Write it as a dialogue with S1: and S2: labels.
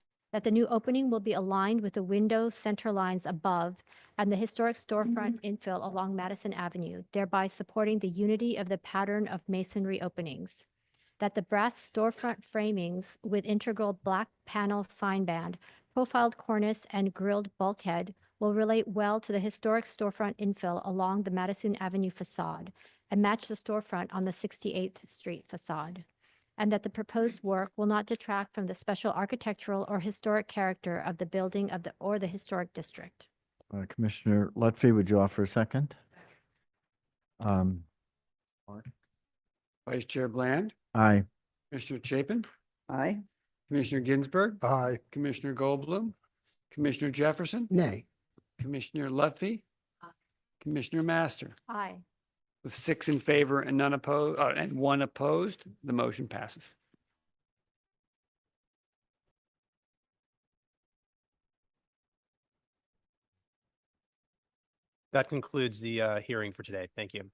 S1: that the new opening will be aligned with the window center lines above and the historic storefront infill along Madison Avenue, thereby supporting the unity of the pattern of masonry openings. That the brass storefront framings with integral black panel signband, profiled cornice, and grilled bulkhead will relate well to the historic storefront infill along the Madison Avenue facade and match the storefront on the 68th Street facade and that the proposed work will not detract from the special architectural or historic character of the building of the, or the historic district.
S2: Uh, Commissioner Lutfi, would you offer a second? Um,
S3: Vice Chair Bland,
S2: aye.
S3: Commissioner Chapin,
S4: Aye.
S3: Commissioner Ginsburg,
S5: Aye.
S3: Commissioner Goldblum, Commissioner Jefferson,
S5: Nay.
S3: Commissioner Lutfi, Commissioner Master.
S1: Aye.
S3: With six in favor and none opposed, uh, and one opposed, the motion passes.
S6: That concludes the uh, hearing for today. Thank you.